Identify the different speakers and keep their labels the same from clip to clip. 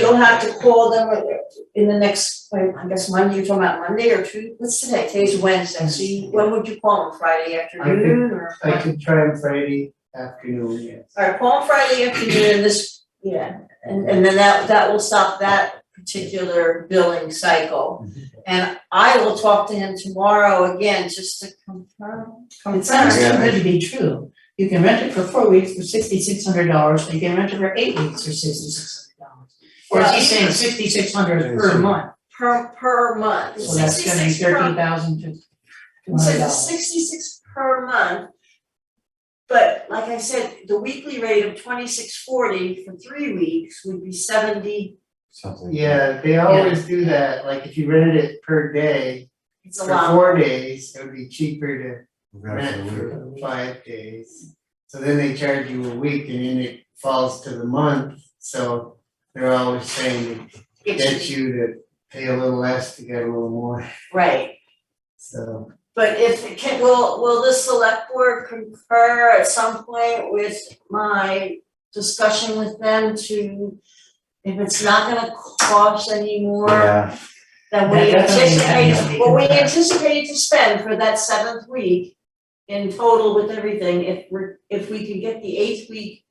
Speaker 1: you'll have to call them in the next, wait, I guess Monday, you're talking about Monday or Tuesday, what's today, today's Wednesday, so you, when would you call them, Friday afternoon or?
Speaker 2: I could try on Friday afternoon, yes.
Speaker 1: Alright, call them Friday afternoon, this, yeah, and and then that that will stop that particular billing cycle.
Speaker 3: Mm-hmm.
Speaker 1: And I will talk to him tomorrow again, just to confirm,
Speaker 3: It sounds
Speaker 1: confirm,
Speaker 3: too good to be true. You can rent it for four weeks for sixty-six hundred dollars, and you can rent it for eight weeks for sixty-six hundred dollars. Or is he saying sixty-six hundred per month?
Speaker 1: per per month,
Speaker 3: So that's gonna be
Speaker 1: sixty-six per
Speaker 3: thirteen thousand to two
Speaker 1: So
Speaker 3: hundred
Speaker 1: the
Speaker 3: dollars.
Speaker 1: sixty-six per month. But like I said, the weekly rate of twenty-six forty for three weeks would be seventy,
Speaker 4: something.
Speaker 2: Yeah, they always do that, like if you rented it per day,
Speaker 1: it's a
Speaker 2: for
Speaker 1: lot.
Speaker 2: four days, it would be cheaper to
Speaker 4: We're gonna
Speaker 2: rent
Speaker 4: have to wait.
Speaker 2: for five days. So then they charge you a week and then it falls to the month, so they're always saying to
Speaker 1: It's-
Speaker 2: get you to pay a little less to get a little more,
Speaker 1: Right,
Speaker 2: so.
Speaker 1: but if, it can, will, will the select board concur at some point with my discussion with them to, if it's not gonna cost any more
Speaker 4: Yeah,
Speaker 1: than we
Speaker 3: That definitely has to
Speaker 1: anticipate,
Speaker 3: be
Speaker 1: what we
Speaker 3: confirmed.
Speaker 1: anticipate to spend for that seventh week in total with everything, if we're, if we can get the eighth week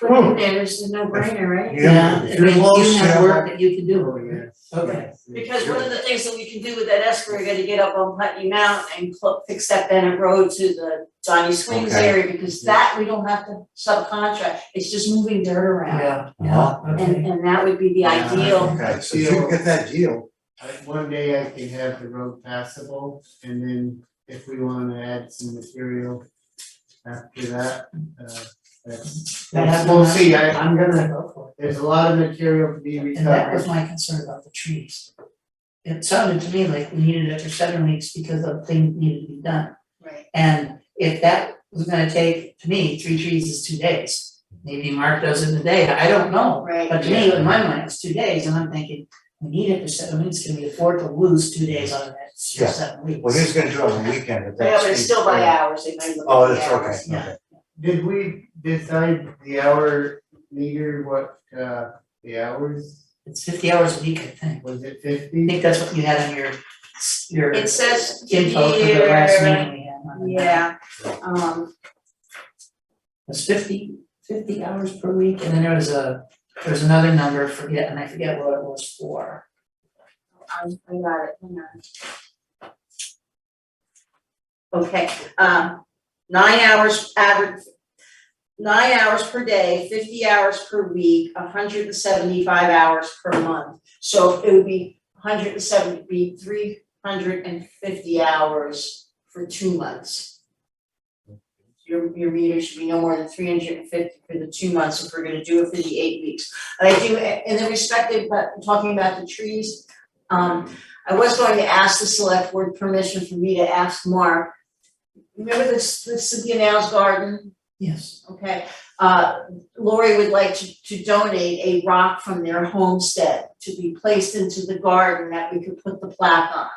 Speaker 1: put
Speaker 3: Hmm.
Speaker 1: in there, it's a no-brainer, right?
Speaker 4: yeah,
Speaker 3: it
Speaker 4: if you're
Speaker 3: means
Speaker 4: close,
Speaker 3: you have
Speaker 4: yeah,
Speaker 3: work that you can do
Speaker 2: Oh,
Speaker 3: over there.
Speaker 2: yes.
Speaker 3: Okay.
Speaker 1: Because one of the things that we can do with that escrow, we gotta get up on Putney Mount and cl- fix that Bennett Road to the Johnny Swings
Speaker 4: Okay.
Speaker 1: area, because that we don't have to subcontract, it's just moving dirt around.
Speaker 3: Yeah, yeah,
Speaker 4: Uh-huh.
Speaker 3: okay.
Speaker 1: And, and that would be the
Speaker 2: Yeah.
Speaker 1: ideal,
Speaker 4: okay, so if you can get that deal,
Speaker 2: Like one day I can have the road passable and then if we wanna add some material after that, uh, that's.
Speaker 3: That has-
Speaker 2: We'll see, I,
Speaker 3: I'm gonna go for it.
Speaker 2: there's a lot of material to be
Speaker 3: And that was
Speaker 2: recovered.
Speaker 3: my concern about the trees. It sounded to me like we needed it for seven weeks because of things needed to be done.
Speaker 1: right,
Speaker 3: And if that was gonna take, to me, three trees is two days. Maybe Mark does it in a day, I don't know.
Speaker 1: right.
Speaker 3: But to me, in my mind, it's two days, and I'm thinking, we need it for seven weeks, can we afford to lose two days out of that for
Speaker 4: Yeah.
Speaker 3: seven weeks?
Speaker 4: well, he was gonna do it on the weekend, but
Speaker 1: Yeah,
Speaker 4: that's.
Speaker 1: but it's still by hours, they might look at the
Speaker 4: Oh, that's
Speaker 1: hours.
Speaker 4: okay,
Speaker 3: yeah.
Speaker 4: okay,
Speaker 2: Did we decide the hour meter, what, uh, the hours,
Speaker 3: It's fifty hours a week, I think.
Speaker 2: was it
Speaker 3: I
Speaker 2: fifty?
Speaker 3: think that's what you had on your, your
Speaker 1: It says
Speaker 3: info for the last
Speaker 1: here,
Speaker 3: meeting we had on the-
Speaker 1: yeah, um,
Speaker 3: It's fifty, fifty hours per week, and then there was a, there was another number, forget, and I forget what it was for.
Speaker 1: I, I got it, hang on. Okay, um, nine hours average, nine hours per day, fifty hours per week, hundred and seventy-five hours per month. So it would be hundred and seventy, be three hundred and fifty hours for two months. Your, your meter should be no more than three hundred and fifty for the two months if we're gonna do it for the eight weeks. And I do, in the respective, but talking about the trees, um, I was going to ask the select board permission for me to ask Mark. Remember this, this Cynthia Now's garden?
Speaker 3: Yes.
Speaker 1: Okay, uh, Lori would like to, to donate a rock from their homestead to be placed into the garden that we could put the plaque on.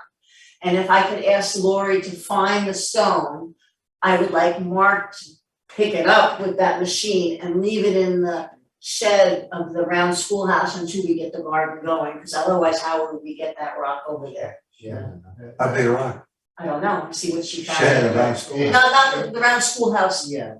Speaker 1: And if I could ask Lori to find the stone, I would like Mark to pick it up with that machine and leave it in the shed of the round schoolhouse until we get the garden going, because otherwise how would we get that rock over there?
Speaker 2: Yeah. Uh,
Speaker 4: a big rock,
Speaker 1: I don't know, see what she found.
Speaker 4: shed around school.
Speaker 1: No, not the, the round schoolhouse,
Speaker 2: Yeah.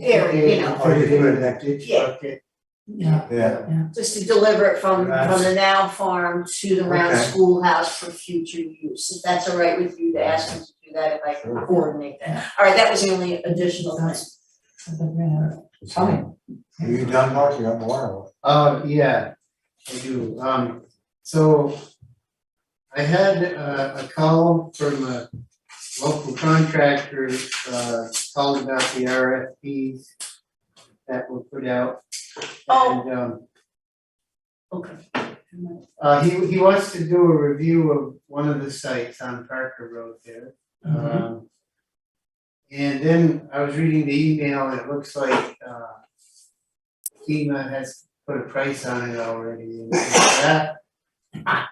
Speaker 1: Area, you know.
Speaker 4: Oh, you put it in that
Speaker 2: ditch
Speaker 1: Yeah.
Speaker 2: bucket.
Speaker 3: Yeah,
Speaker 4: Yeah,
Speaker 1: just to deliver it from from the
Speaker 4: Nice.
Speaker 1: now farm to the round
Speaker 4: Okay.
Speaker 1: schoolhouse for future use, if that's all right with you to ask them to do that, if I can
Speaker 4: Sure.
Speaker 1: coordinate that. All right, that was the only additional thing.
Speaker 4: it's fine. Are you done, Mark, you're on the water.
Speaker 2: Uh, yeah, I do, um, so I had uh, a, a call from a local contractor, uh, called about the RFPs that were put out.
Speaker 1: Oh.
Speaker 2: And, um,
Speaker 1: Okay.
Speaker 2: Uh, he, he wants to do a review of one of the sites on Parker Road there.
Speaker 3: Mhm.
Speaker 2: Um, And then I was reading the email and it looks like, uh, FEMA has put a price on it already and that,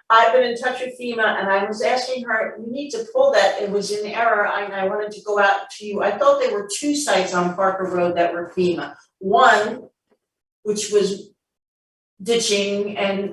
Speaker 1: I've been in touch with FEMA and I was asking her, we need to pull that, it was in error, I- and I wanted to go out to you, I thought there were two sites on Parker Road that were FEMA. One, which was ditching and